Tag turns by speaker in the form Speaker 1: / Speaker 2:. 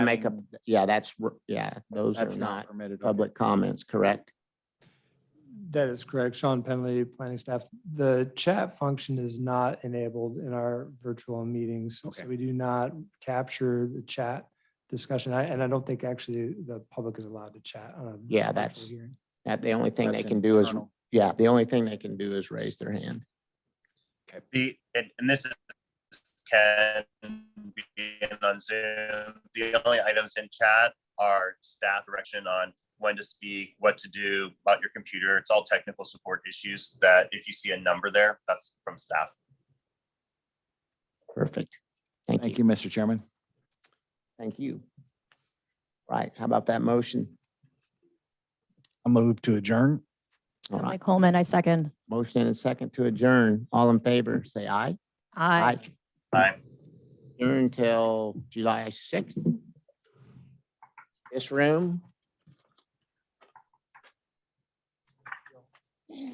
Speaker 1: make up, yeah, that's, r- yeah, those are
Speaker 2: That's
Speaker 1: not
Speaker 2: not permitted. okay.
Speaker 1: public comments, correct?
Speaker 3: That is correct. Sean Penley, planning staff. The chat function is not enabled in our virtual meetings. So
Speaker 2: Okay.
Speaker 3: we do not capture the chat discussion. I- And I don't think actually the public is allowed to chat on a.
Speaker 1: Yeah,
Speaker 3: virtual
Speaker 1: that's-
Speaker 3: hearing.
Speaker 1: That the only thing they
Speaker 2: That's
Speaker 1: can do is,
Speaker 2: internal.
Speaker 1: yeah, the only thing they can do is raise their hand.
Speaker 4: The, and, and this is, can be on Zoom. The only items in chat are staff direction on when to speak, what to do about your computer. It's all technical support issues that if you see a number there, that's from staff.
Speaker 1: Perfect. Thank
Speaker 2: Thank
Speaker 1: you.
Speaker 2: you, Mr. Chairman.
Speaker 1: Thank you. Right, how about that motion?
Speaker 5: I move to adjourn.
Speaker 1: All
Speaker 6: Emily
Speaker 1: right,
Speaker 6: Coleman, I second.
Speaker 1: motion and a second to adjourn. All in favor, say aye.
Speaker 6: Aye.
Speaker 4: Aye.
Speaker 1: Adjourn until July sixth. This room